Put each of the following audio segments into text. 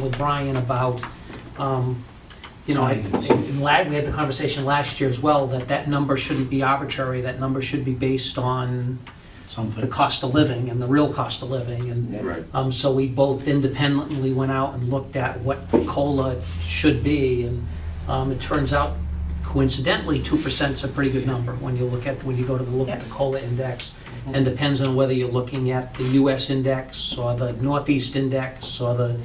with Brian about, um, you know, I- in la- we had the conversation last year as well, that that number shouldn't be arbitrary, that number should be based on the something. cost of living and the real cost of living, and Right. um, so we both independently went out and looked at what COLA should be, and um, it turns out coincidentally, 2% is a pretty good number when you look at, when you go to the look at the COLA index, Mm-hmm. and depends on whether you're looking at the US index, or the Northeast index, or the,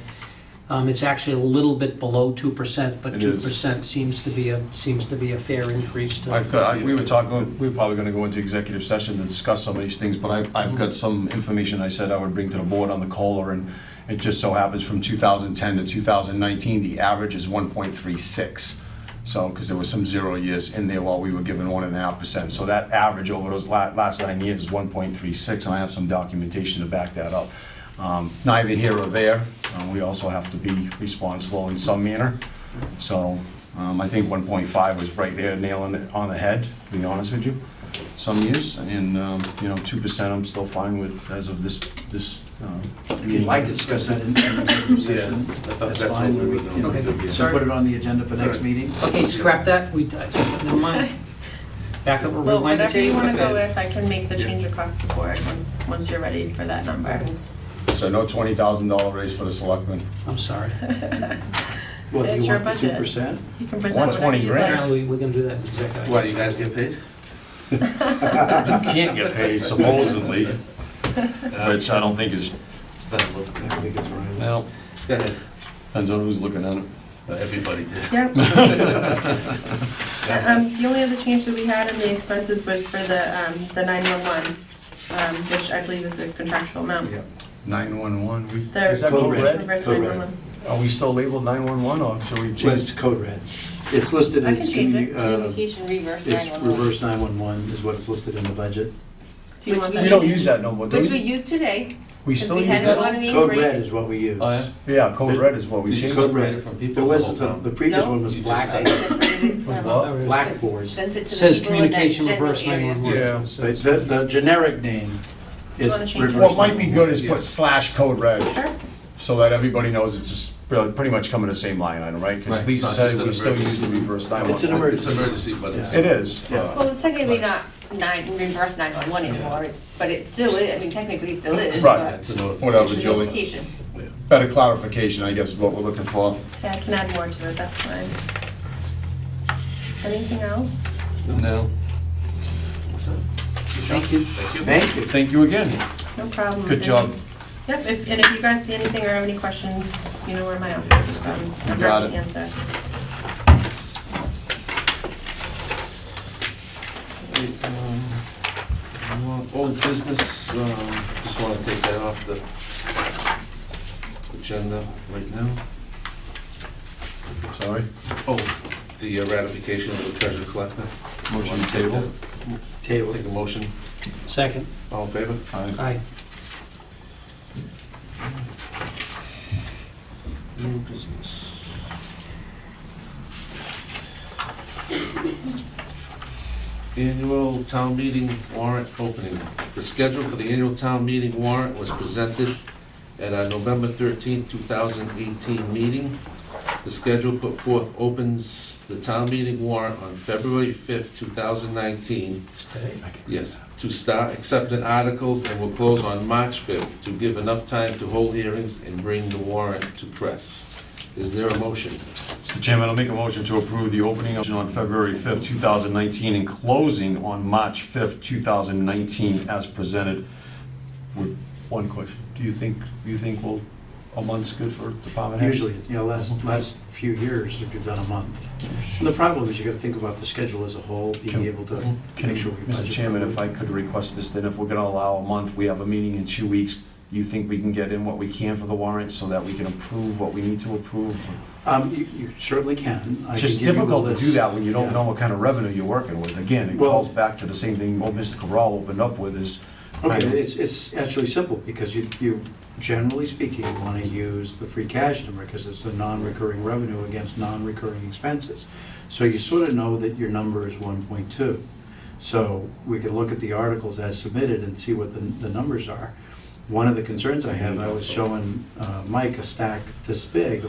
um, it's actually a little bit below 2%, but It is. 2% seems to be a, seems to be a fair increase to. I've got, I- we were talking, we were probably gonna go into executive session to discuss some of these things, but I've, I've got some information I said I would bring to the board on the COLA, and it just so happens from 2010 to 2019, the average is 1.36. So, because there were some zero years in there while we were given one and a half percent. So that average over those la- last nine years is 1.36, and I have some documentation to back that up. Um, Neither here or there, Uh, we also have to be responsible in some manner. So um, I think 1.5 was right there nailing it on the head, to be honest with you, some years. And, um, you know, 2% I'm still fine with as of this, this. um, If you'd like to discuss that in in executive Yeah, session, I thought that's that's what fine. we were We- you know, gonna do, yeah. So put it on the agenda for next Sorry. meeting. Okay, scrap that, we, never mind, back up, Well, rewind the whatever you tape. wanna go with, I can make the change across the board once, once you're ready for that number. So no $20,000 raise for the selectmen. I'm sorry. What, do It's you your want the two budget. percent? You can present whatever 120 you grand. like. Apparently, we're gonna do that in executive. What, you guys get paid? You can't get paid supposedly, which I don't think is, It's better look. I think it's right. well, Go ahead. depends on who's looking at it. Everybody did. Yep. Uh, Um, the only other change that we had in the expenses was for the, um, the nine-one-one, um, which I believe is a contractual amount. Yeah. 911, we- The is that code Code red? Reverse Code red. 911. Are we still labeled 911 or should we Well, change? it's code red. It's listed I can as, change communi- it. uh, Communication reverse it's 911. reverse 911 is what it's listed in the budget. Do you Which want we We that? don't use that no more, do Which we we? use today, We because still we use had a that? lot of Code red meetings. is what we use. Oh, yeah? Yeah, code red is what we Did you changed. code Code red red. it from people There the was, whole the time? the previous No. one was You just black, said- Well, blackboard. Sent it to the Says people in that communication general reverse area. 911. Yeah. But The, the generic name is Wanna change it? reverse What might be 911. good is put slash code red, Sure. so that everybody knows it's just pre- pretty much coming to the same line item, right? Right, Because it's Lisa not said just an we still use emergency. the reverse It's an 911. It's emergency. emergency, but it's. It is. Yeah. uh, Well, it's technically not nine, reverse 911 anymore, it's, but it still is, I mean, technically it still is, Right. but It's a notification. Whatever, it's a Julie. notification. Better clarification, I guess, is what we're looking for. Yeah, I can add more to it, that's fine. Anything else? No. Thank you. Thank you. Thank you again. No problem. Good job. Yep, if, and if you guys see anything or have any questions, you know where my office is, um, I'm got happy to it. answer. Um, Old business, um, just wanna take that off the agenda right now. Sorry. Oh, the uh, ratification of the treasure collector. Motion Wanna to take table. that? Table. Take a motion, Second. all in favor? Aye. Aye. New business. Annual town meeting warrant opening. The schedule for the annual town meeting warrant was presented at our November thirteenth, two thousand eighteen meeting. The schedule put forth opens the town meeting warrant on February fifth, two thousand nineteen, Yes, to start accepting articles and will close on March 5th to give enough time to hold hearings and bring the warrant to press. Is there a motion? Mr. Chairman, I'll make a motion to approve the opening on February 5th, 2019, and closing on March 5th, 2019, as presented. With One question, do you think, you think we'll, a month's good for department heads? Usually, you know, last, last few years, if you've done a month. And the problem is you gotta think about the schedule as a whole, Can- being able to Can, make sure we budget. Mr. Chairman, if I could request this, then if we're gonna allow a month, we have a meeting in two weeks, you think we can get in what we can for the warrant so that we can approve what we need to approve? Um, you, you certainly can. I It's can just give you a difficult to do list. that when you don't Yeah. know what kind of revenue you're working with. Again, it Well- calls back to the same thing old Mr. Cabral opened up with is. Okay, it's, it's actually simple, because you, you, generally speaking, you wanna use the free cash number, because it's the non-recurring revenue against non-recurring expenses. So you sort of know that your number is one point two. So we can look at the articles as submitted and see what the, the numbers are. One of the concerns I have, I was showing uh, Mike a stack this big